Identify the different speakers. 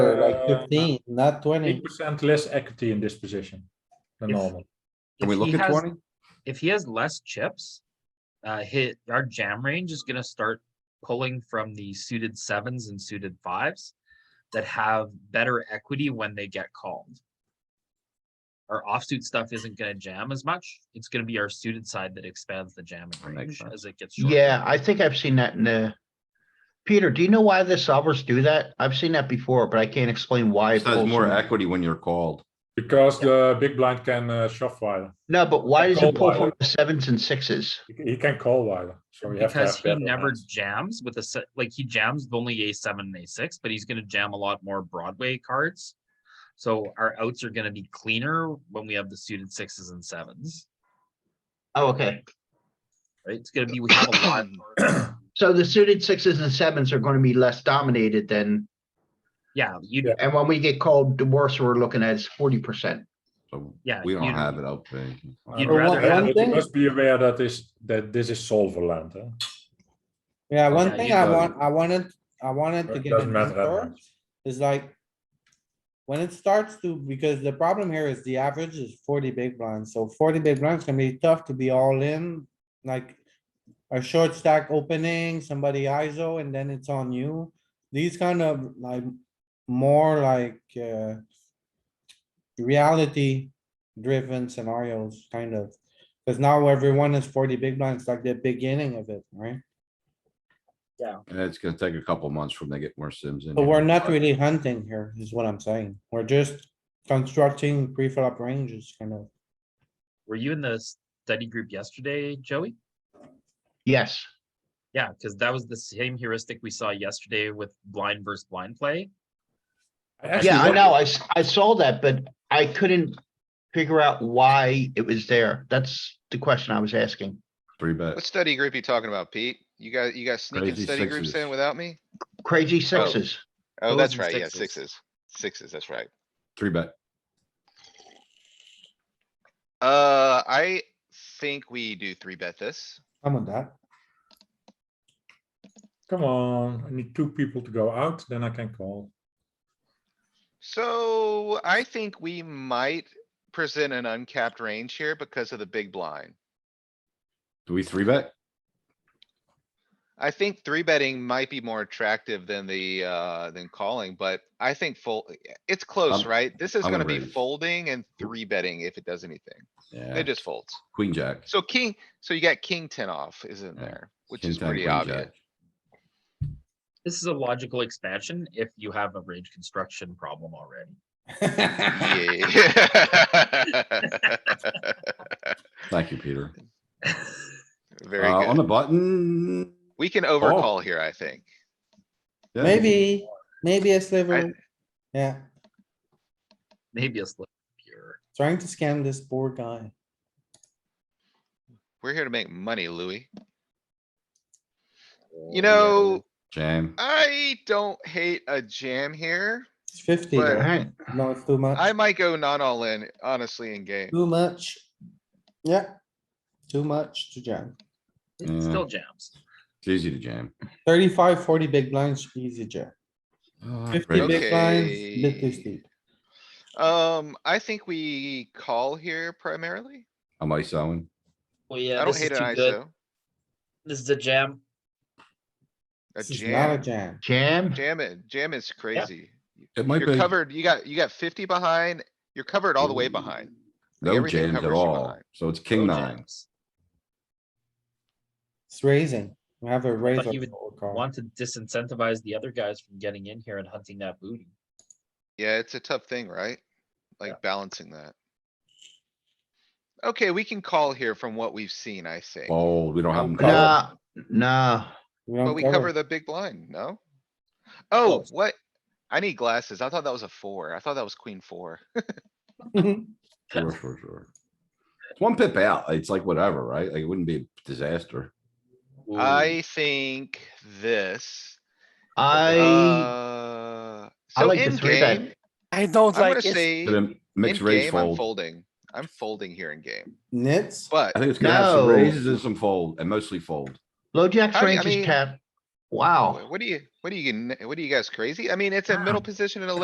Speaker 1: uh,
Speaker 2: like fifteen, not twenty.
Speaker 1: Eight percent less equity in this position than
Speaker 3: If-
Speaker 1: normal.
Speaker 3: If
Speaker 4: Can we look
Speaker 3: he
Speaker 4: at
Speaker 3: has-
Speaker 4: twenty?
Speaker 3: If he has less chips, uh, hit, our jam range is gonna start pulling from the suited sevens and suited fives that have better equity when they get called. Our offsuit stuff isn't gonna jam as much. It's gonna be our suited side that expands the jamming range
Speaker 4: sense.
Speaker 3: as it gets. shorter.
Speaker 5: Yeah, I think I've seen that in the. Peter, do you know why the solvers do that? I've seen that before, but I can't explain why. it
Speaker 4: Just has
Speaker 5: pulls
Speaker 4: more
Speaker 5: from-
Speaker 4: equity when you're called.
Speaker 1: Because the big blind can uh, shove wider.
Speaker 5: No, but why does
Speaker 1: Call
Speaker 5: it pull from
Speaker 1: wider.
Speaker 5: the sevens and sixes?
Speaker 1: He- He can call wider, so we have to
Speaker 3: Because
Speaker 1: have
Speaker 3: he
Speaker 1: better
Speaker 3: never
Speaker 1: hands.
Speaker 3: jams with a set, like he jams with only a seven and a six, but he's gonna jam a lot more Broadway cards. So our outs are gonna be cleaner when we have the suited sixes and sevens,
Speaker 5: Oh, okay.
Speaker 3: right? It's gonna be, we have a lot. more-
Speaker 5: So the suited sixes and sevens are gonna be less dominated than,
Speaker 3: Yeah, you,
Speaker 1: Yeah.
Speaker 5: and when we get called, the worst we're looking at is forty percent.
Speaker 4: So
Speaker 3: Yeah,
Speaker 4: we don't
Speaker 3: you'd-
Speaker 4: have it out there.
Speaker 3: you'd
Speaker 1: Uh,
Speaker 3: rather
Speaker 1: but
Speaker 3: have-
Speaker 1: You must be aware that is, that this is solver land, huh?
Speaker 2: Yeah,
Speaker 3: Yeah,
Speaker 2: one thing
Speaker 3: you
Speaker 2: I
Speaker 4: got
Speaker 2: want, I wanted, I wanted to
Speaker 1: It
Speaker 2: get
Speaker 1: doesn't matter that
Speaker 2: in
Speaker 1: much.
Speaker 2: is like. When it starts to, because the problem here is the average is forty big blinds, so forty big blinds can be tough to be all in, like. A short stack opening, somebody ISO, and then it's on you. These kind of like, more like, uh. Reality driven scenarios, kind of. Cause now everyone is forty big blinds, like the beginning of it, right?
Speaker 4: And it's gonna take a couple months from they get more sims in.
Speaker 2: But
Speaker 4: here.
Speaker 2: we're not really hunting here, is what I'm saying. We're just constructing pre-flop ranges, kind of.
Speaker 3: were you in the study group yesterday, Joey?
Speaker 5: Yes,
Speaker 3: Yeah, because that was the same heuristic we saw yesterday with blind versus blind play.
Speaker 1: Actually,
Speaker 5: yeah, I
Speaker 1: what-
Speaker 5: know, I, s- I saw that, but I couldn't figure out why it was there. That's the question I was asking.
Speaker 4: Three bet.
Speaker 6: What study group you talking about, Pete? You got, you got sneaking
Speaker 4: Crazy
Speaker 6: study groups
Speaker 4: sixes.
Speaker 6: in without me?
Speaker 5: Crazy sixes,
Speaker 6: Oh,
Speaker 3: Those
Speaker 6: that's
Speaker 3: and
Speaker 6: right, yeah,
Speaker 3: sixes.
Speaker 6: sixes, sixes, that's right.
Speaker 4: three bet.
Speaker 6: Uh, I think we do three bet this.
Speaker 2: Come on that.
Speaker 1: Come on, I need two people to go out, then I can call.
Speaker 6: So I think we might present an uncapped range here because of the big blind.
Speaker 4: Do we three bet?
Speaker 6: I think three betting might be more attractive than the, uh, than calling, but I think full, it's close,
Speaker 4: I'm-
Speaker 6: right? This is
Speaker 4: I'm
Speaker 6: gonna be
Speaker 4: agreed.
Speaker 6: folding and three betting if it does anything.
Speaker 4: Yeah,
Speaker 6: It just folds.
Speaker 4: queen jack.
Speaker 6: So king, so you got king ten off, isn't
Speaker 4: Yeah.
Speaker 6: there? Which
Speaker 4: King
Speaker 6: is
Speaker 4: ten,
Speaker 6: pretty
Speaker 4: queen
Speaker 6: obvious.
Speaker 4: jack.
Speaker 3: This is a logical expansion if you have a range construction problem already.
Speaker 6: Yeah.
Speaker 4: Thank you, Peter. Uh,
Speaker 6: Very
Speaker 4: on Oh. the
Speaker 6: good.
Speaker 4: button.
Speaker 6: We can overcall here, I think.
Speaker 4: yeah,
Speaker 2: Maybe, maybe a sliver. Yeah,
Speaker 3: Maybe a slip here.
Speaker 2: trying to scam this poor guy.
Speaker 6: We're here to make money, Louis.
Speaker 3: Oh, yeah.
Speaker 6: You know,
Speaker 4: Jam.
Speaker 6: I don't hate a jam here.
Speaker 2: It's fifty,
Speaker 6: But-
Speaker 2: though.
Speaker 5: alright,
Speaker 2: no, it's too
Speaker 6: I
Speaker 2: much,
Speaker 6: might go not all in, honestly, in game.
Speaker 2: too much. Yeah, too much to jam.
Speaker 3: It still jams.
Speaker 4: It's easy to jam.
Speaker 2: 35, 40 big blinds, easy jam.
Speaker 4: Ah,
Speaker 2: Fifty
Speaker 4: great.
Speaker 2: big blinds, bit too
Speaker 6: Okay.
Speaker 2: steep.
Speaker 6: Um, I think we call here primarily.
Speaker 4: I'm ISOing.
Speaker 3: Well,
Speaker 6: I
Speaker 3: yeah,
Speaker 6: don't
Speaker 3: this
Speaker 6: hate
Speaker 3: is
Speaker 6: an
Speaker 3: too good.
Speaker 6: ISO.
Speaker 3: This is a jam.
Speaker 6: A
Speaker 2: This is not a
Speaker 6: jam,
Speaker 2: jam.
Speaker 5: jam,
Speaker 6: jam it, jam is crazy.
Speaker 4: It might
Speaker 6: You're
Speaker 4: be
Speaker 6: covered, you got, you got fifty behind, you're covered all the way behind. like
Speaker 4: no
Speaker 6: everything
Speaker 4: jams at
Speaker 6: covers you
Speaker 4: all.
Speaker 6: behind.
Speaker 4: So it's king
Speaker 3: No
Speaker 4: nine.
Speaker 3: jams.
Speaker 2: It's raising. We have a raise.
Speaker 3: But
Speaker 2: of
Speaker 3: you would
Speaker 2: all call.
Speaker 3: Want to disincentivize the other guys from getting in here and hunting that booty.
Speaker 6: Yeah, it's a tough thing, right? Like balancing that. Okay, we can call here from what we've seen, I think.
Speaker 4: Fold. We don't have them
Speaker 6: Covered.
Speaker 4: covered.
Speaker 5: nah, nah,
Speaker 2: We
Speaker 6: But
Speaker 2: don't
Speaker 6: we cover the big blind, no? Oh, what? I need glasses. I thought that was a four. I thought that was queen four.
Speaker 4: Sure, sure, sure. It's One pip out. It's like whatever, right? Like it wouldn't be a disaster.
Speaker 6: I think this.
Speaker 5: I,
Speaker 6: Uh,
Speaker 5: I
Speaker 6: so
Speaker 5: like
Speaker 6: in
Speaker 5: the three bet.
Speaker 6: game,
Speaker 7: I
Speaker 6: I'm
Speaker 7: don't like
Speaker 6: gonna
Speaker 7: it.
Speaker 6: say,
Speaker 4: Did
Speaker 6: in
Speaker 4: a Mixed raise
Speaker 6: game, I'm
Speaker 4: fold.
Speaker 6: folding. I'm folding here in game,
Speaker 2: Nits.
Speaker 6: but
Speaker 4: I think it's gonna have some
Speaker 5: No.
Speaker 4: raises and some fold and mostly fold.
Speaker 5: low jack's
Speaker 6: How do you-
Speaker 5: range
Speaker 6: I
Speaker 5: is
Speaker 6: mean-
Speaker 5: tapped.
Speaker 6: wh-
Speaker 5: Wow.
Speaker 6: what do you, what do you, what are you guys crazy? I mean, it's a middle position and a